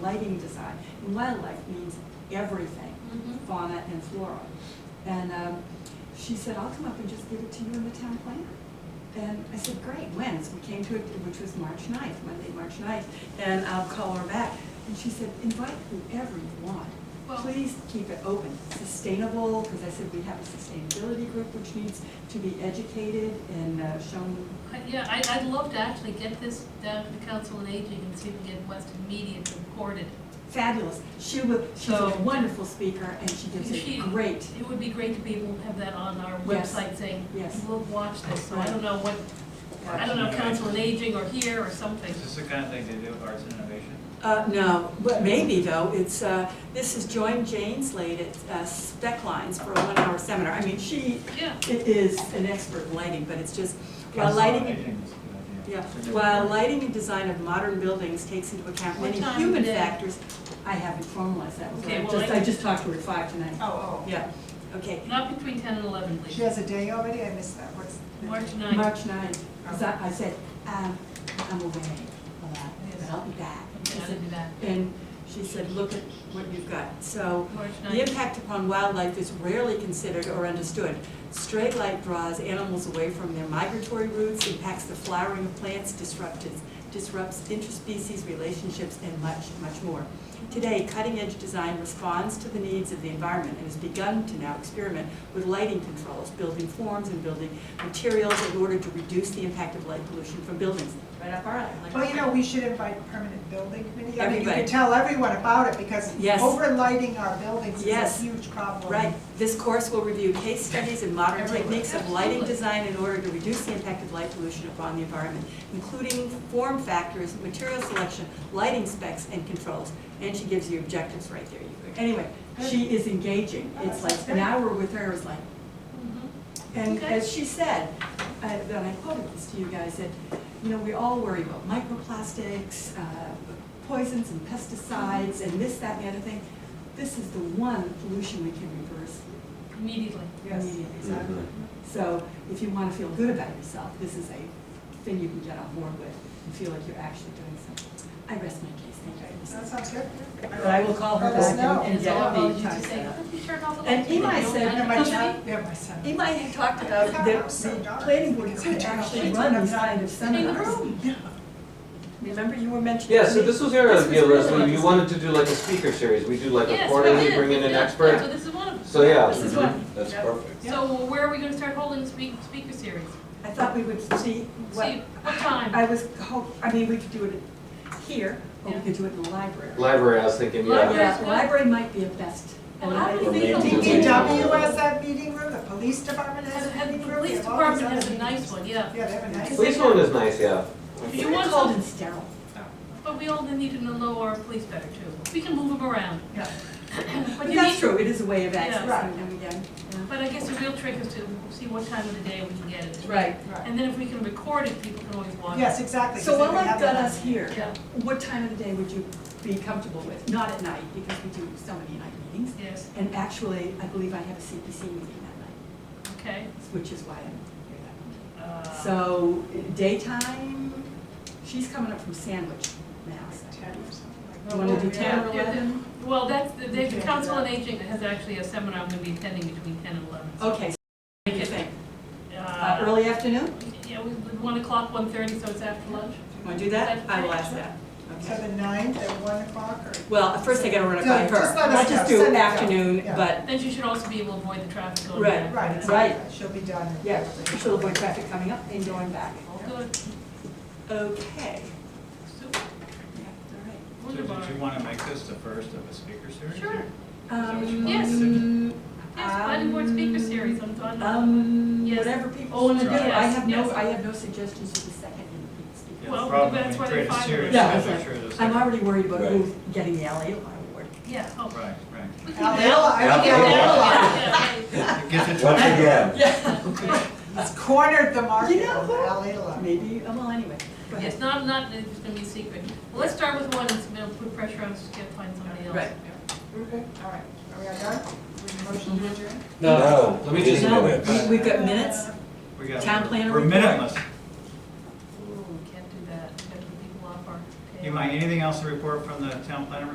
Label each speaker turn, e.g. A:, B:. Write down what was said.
A: lighting design. And wildlife means everything,
B: Mhm.
A: fauna and flora. And um, she said, I'll come up and just give it to you in the town planner. And I said, great, when? So we came to it, which was March 9th, Monday, March 9th, and I'll call her back. And she said, invite whoever you want.
B: Well-
A: Please keep it open, sustainable, because I said we have a sustainability group which needs to be educated and uh, shown
B: I- Yeah, I, I'd love to actually get this down to the council on aging and see if we can get Weston Media to record it.
A: fabulous. She was, she's a
B: So-
A: wonderful speaker and she gives
B: She-
A: a great,
B: It would be great to be able to have that on our
A: Yes.
B: website saying,
A: Yes.
B: we'll watch this, so I don't know what, I don't know, council on aging or here or something.
C: Is this the kind of thing they do, arts and innovation?
A: uh, no, but maybe though, it's, uh, this is Joan Jane's late at uh, Spec Lines for a one-hour seminar. I mean, she
B: Yeah.
A: it is an expert in lighting, but it's just, while
C: Council on
A: lighting,
C: Aging is a good idea.
A: yeah,
C: It's a good
A: while
C: word.
A: lighting and design of modern buildings takes into account
B: What
A: many
B: time
A: human
B: of day?
A: factors. I haven't formalized that, so
B: Okay,
A: I
B: well,
A: just,
B: I-
A: I just talked to her at five tonight.
D: Oh, oh.
A: Yeah, okay.
B: Not between ten and eleven,
D: She
B: please.
D: has a day already? I missed that. What's? the-
B: March ninth.
A: March ninth,
B: Oh.
A: 'cause I, I said, um, I'm away a lot, but I'll be back. She
B: Okay, I'll
A: said-
B: do that.
A: And she said, look at what you've got. So
B: March
A: the
B: 9th.
A: impact upon wildlife is rarely considered or understood. Straight light draws animals away from their migratory routes, impacts the flowering of plants, disrupts, disrupts interspecies relationships, and much, much more. Today, cutting-edge design responds to the needs of the environment and has begun to now experiment with lighting controls, building forms and building materials in order to reduce the impact of light pollution from buildings. Right up our alley. like-
D: Well, you know, we should invite permanent building committee. I mean, you
A: Everybody.
D: can tell everyone about it because
A: Yes.
D: overlighting our buildings is a
A: Yes.
D: huge problem.
A: Right, this course will review case studies and modern
D: Everywhere.
A: techniques of lighting
B: Absolutely.
A: design in order to reduce the impact of light pollution upon the environment, including form factors, material selection, lighting specs, and controls. And she gives you objectives right there. You could- Anyway, she is engaging. It's like, an hour with her is like,
B: Mhm.
A: and
B: Okay.
A: as she said, uh, and I quoted this to you guys, that, you know, we all worry about microplastics, uh, poisons and pesticides, and this, that, and the other thing. This is the one pollution we can reverse
B: Immediately.
D: Yes.
A: immediately.
E: Mm-hmm.
A: So if you want to feel good about yourself, this is a thing you can get on board with and feel like you're actually doing something. I rest my case, thank you.
D: That sounds good.
A: But I will call her
D: Let us
A: back
D: know.
A: and-
B: And
A: and
B: it's
A: get
B: all
A: all
B: about
A: the
B: you to
A: time
B: say,
A: set up.
B: "Could you turn off the
A: And
B: lights?" You
A: Imai
B: know,
A: said-
B: I
D: And
B: don't
D: my
B: know.
D: child, yeah, my son.
A: Imai had talked about
D: It's
A: that
D: hot outside,
A: the
D: dark.
A: planning board could
D: It's hot
A: actually
D: outside.
A: run these kind of seminars.
B: room.
D: Yeah.
A: Remember you were mentioning?
E: Yeah, so this was your
A: This was
E: idea,
A: really
E: Leslie,
A: nice.
E: you wanted to do like a speaker series, we do like a
B: Yes,
E: quarterly,
B: we did.
E: bring in an
B: Yeah, So
E: expert,
B: this is one of them.
E: so yeah.
A: This is one.
E: mhm, That's
D: Yeah.
E: perfect.
B: So where are we gonna start holding speak, speaker series?
A: I thought we would see what,
B: See, what time?
A: I was, hope- I mean, we could do it here, or we
B: Yeah.
A: could do it in the library.
E: Library, I was thinking,
B: Library.
E: yeah,
A: Yeah,
B: good.
A: library might be a best.
B: Well, how
E: do
A: Library.
E: you think of-
D: DPW has that meeting room, the police department has
B: And
D: a
B: and
D: meeting
B: the
D: room.
B: police
D: they have all these
B: department has
D: other
B: a nice
D: meetings.
B: one, yeah.
D: Yeah, they have a nice.
E: police one is nice, yeah.
B: If you
A: They're
B: want
A: cold
B: some-
A: and sterile.
B: But we all need to know our police better too. We can move them around.
D: Yeah.
B: But
A: But
B: you
A: that's
B: need,
A: true, it is a way of
B: Yeah.
A: accessing them again.
B: but I guess the real trick is to see what time of the day we can get it.
A: Right.
D: Right.
B: And then if we can record it, people can always watch.
D: Yes, exactly. 'cause
A: So
D: they
A: while
D: can
A: I've
D: have
A: got
D: that-
A: us here,
B: Yeah.
A: what time of the day would you be comfortable with? Not at night, because we do so many night meetings.
B: Yes,
A: And actually, I believe I have a CPC meeting that night,
B: okay.
A: which is why I'm here that
B: Uh,
A: night. So daytime, she's coming up from Sandwich, Mass.
D: Ten or something like
A: You wanna do ten or
B: Yeah, yeah,
A: eleven?
B: Well, that's, the- the
D: Okay.
B: council on aging has actually a seminar I'm gonna be attending between ten and eleven. so,
A: Okay, so what do Oh, you think? Uh,
B: uh,
A: Early afternoon?
B: Yeah, we, one o'clock, one thirty, so it's after lunch.
A: Want to do that? I will ask that.
D: that.
A: Okay.
D: So the ninth at one o'clock or?
A: Well, first I gotta run it
D: No,
A: by her.
D: just let us
A: Not just
D: know.
A: do
D: Send it out.
A: afternoon,
D: Yeah.
A: but
B: Then you should also be able to avoid the traffic going
A: Right,
B: back.
D: Right,
A: Right.
D: exactly. She'll be done.
A: Yeah, she'll avoid traffic coming up and going back.
B: Good,
A: Okay.
B: super,
C: So
B: wonderful.
C: did you want to make this the first of a speaker series?
B: Sure.
C: or- what you
A: Um,
B: wanted to
A: yes.
B: Yes, planning board speaker series, I'm done.
A: Um,
B: Yes.
A: whatever people
B: Oh,
A: want to do,
C: yes,
A: I have no,
B: yes.
A: I have no suggestions for the second
C: Yeah,
A: speaker.
B: Well,
C: probably
B: that's why
C: create
B: they're
C: a
B: five
C: series,
B: minutes. Yeah,
C: so
A: that's
C: make
A: right.
C: sure there's-
A: I'm already worried about
E: Right.
A: who's getting the alley award.
B: Yeah, oh.
C: Right, right.
B: we can-
D: Alala, I think
B: Yeah,
D: Alala
B: yeah, yeah, yeah.
C: It gets it
E: Once
C: right.
E: again.
A: Yeah.
D: has cornered the market.
A: You know who?
D: Alala.
A: Maybe, oh, well, anyway, go ahead.
B: It's not, not, it's gonna be a secret. Well, let's start with one, and we'll put pressure on us to get, find somebody else.
A: Right.
D: We're good, all right. Are we all done? We motion to adjourn?
E: No, let me just.
A: No,
E: minutes.
A: we- Mm-hmm. We've got minutes?
C: We got-
A: Town planner
C: We're
A: report.
C: minuteless.
B: Ooh, can't do that, gotta put people off our.
C: You mind, anything else to report from the town planner